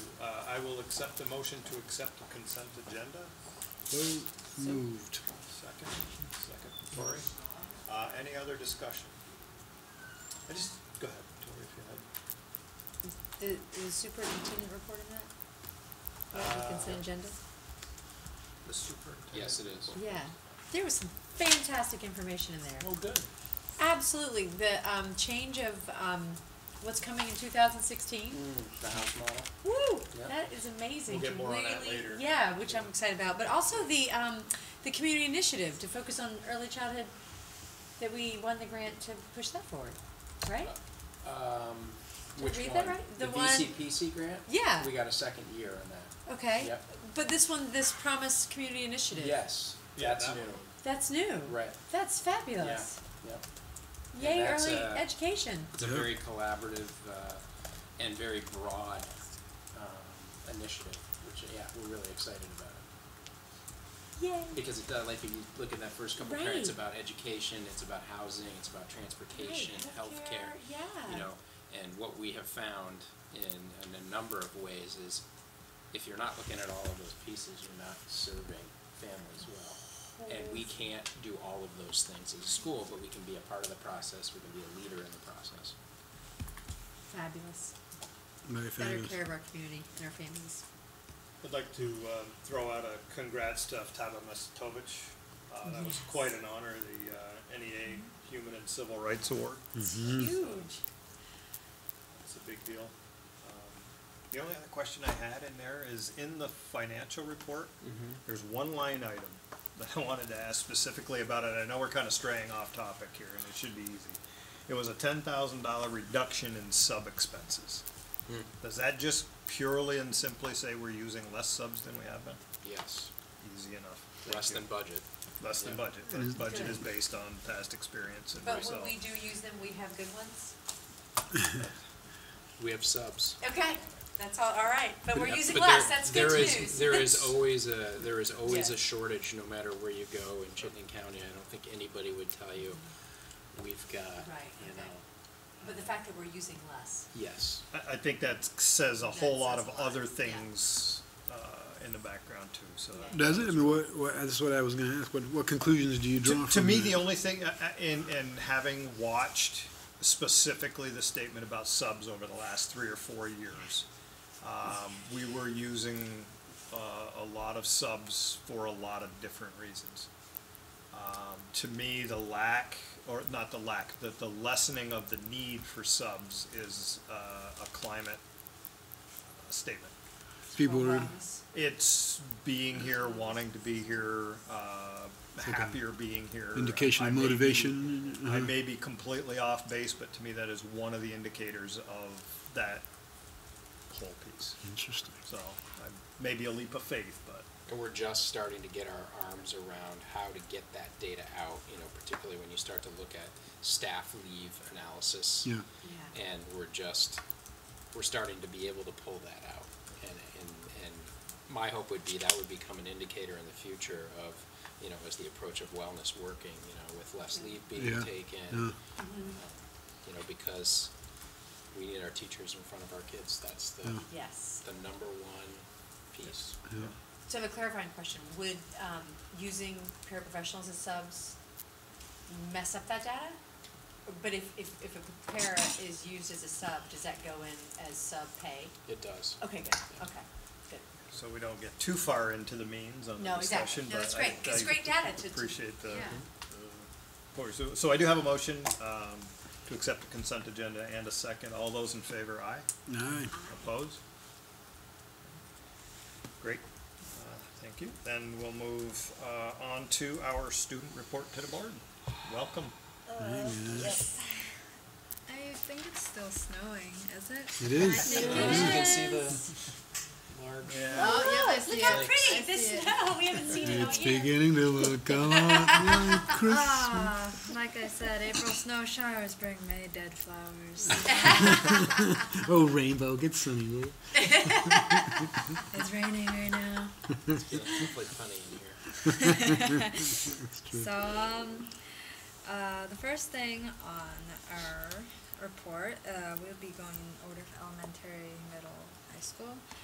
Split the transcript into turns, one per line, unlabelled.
Uh, I will accept the motion to accept the consent agenda.
So
Hmm.
moved.
Second, second, Tori. Uh, any other discussion? I just, go ahead, Tori, if you had.
The, the superintendent report in that? Or the
Uh,
consent agenda?
The superintendent.
Yes, it is.
Yeah, there was some fantastic information in there.
Well, Oh, good.
Absolutely, the, um, change of, um, what's coming in two thousand sixteen.
The house model?
Woo,
Yeah.
that is amazing.
Mm. We'll get more on that
Really-
later.
Yeah, which I'm excited about, but also the, um, the community initiative to focus on early childhood, that we won the grant to push that forward, right?
Uh,
Um,
Did I
which
read
one?
that right? The one-
VCPC grant?
Yeah.
We got a second year on that.
Okay.
Yep.
But this one, this promise community initiative.
Yes,
Yeah,
that's
that
new.
That's new.
Right,
That's fabulous.
yep. And
Yay,
that's,
early
uh,
education.
It's a
Yeah.
very collaborative, uh, and very broad, um, initiative, which, yeah, we're really excited about it.
Yay.
Because it, does- like, if you look at that first couple of parents,
Right.
about education, it's about housing, it's about transportation, healthcare.
Yeah.
you know, and what we have found in, in a number of ways is if you're not looking at all of those pieces, you're not serving families well. And we can't do all of those things as a school, but we can be a part of the process, we can be a leader in the process.
Fabulous.
Very
Better
fabulous.
care of our community and our families.
I'd like to um, throw out a congrats to Tava Mestovich. Uh, That was quite an honor, the uh, NEA Human and Civil Rights Award.
Mm-hmm.
Huge.
It's a big deal. Um, The only other question I had in there is in the financial report, there's one line item that I wanted to ask specifically about it. I know we're kind of straying off topic here and it should be easy. It was a ten thousand dollar reduction in sub expenses. Does that just purely and simply say we're using less subs than we have been?
Yes,
Easy enough.
less
Thank
than
you.
budget.
Less than
yeah.
budget. But budget is based on past experience and
But when
result.
we do use them, we have good ones.
We have subs.
Okay, that's all, all right. But we're
Yeah,
using
but there-
less, that's good
there
news.
is- There is always a, there is always
Yeah.
a shortage, no matter where you go in Chittenden County, I don't think anybody would tell you, we've got,
Right,
you
okay.
know,
But the fact that we're using less.
yes.
I, I think that says a
That
whole lot
says
of
a lot,
other
yeah.
things, uh, in the background too, so. that-
Does it? I mean, what, what, that's what I was gonna ask. What, what conclusions do you draw
To, to
from
me,
that?
the only thing, uh, uh, in, in having watched specifically the statement about subs over the last three or four years, um, we were using, uh, a lot of subs for a lot of different reasons. Um, to me, the lack, or not the lack, the, the lessening of the need for subs is, uh, a climate uh, statement.
People are,
Wellness.
It's being here, wanting to be here, uh,
like a
happier being here.
indication of
I may be-
motivation,
I
uh-huh.
may be completely off base, but to me, that is one of the indicators of that whole piece.
interesting.
So, I'm- maybe a leap of faith, but
And we're just starting to get our arms around how to get that data out, you know, particularly when you start to look at staff leave analysis.
Yeah.
Yeah.
And we're just, we're starting to be able to pull that out. And, and, and my hope would be that would become an indicator in the future of, you know, as the approach of wellness working, you know, with less leave being
Yeah, yeah.
taken. You know, because we need our teachers in front of our kids. That's the,
Yeah.
Yes.
the number one piece.
Yeah.
So I have a clarifying question. Would, um, using paraprofessionals as subs mess up that data? But if, if, if a para is used as a sub, does that go in as sub pay?
It does.
Okay, good, okay, good.
so we don't get too far into the means on the
No, exactly.
discussion.
No,
but
it's
I-
great. It's
I
great data to- to-
Appreciate the.
yeah.
Or So, so I do have a motion, um, to accept the consent agenda and a second. All those in favor, aye?
All right.
Opposed? Great, Uh, thank you. Then we'll move uh, on to our student report to the board. Welcome.
Yes.
I think it's still snowing, is it?
It is.
I think
As you
it
can
is.
see the large.
Yeah.
Oh, yep, I
Look
see
how
it.
pretty
I
this
see it.
snow, we haven't seen it all
It's
yet.
beginning to look a lot like Christmas.
Ah, like I said, April snow showers bring May dead flowers.
Oh, rainbow, get sunny, will you?
it's raining right now.
Hopefully funny in here.
So, um, uh, the first thing on our report, uh, we'll be going in order of elementary, middle, high school.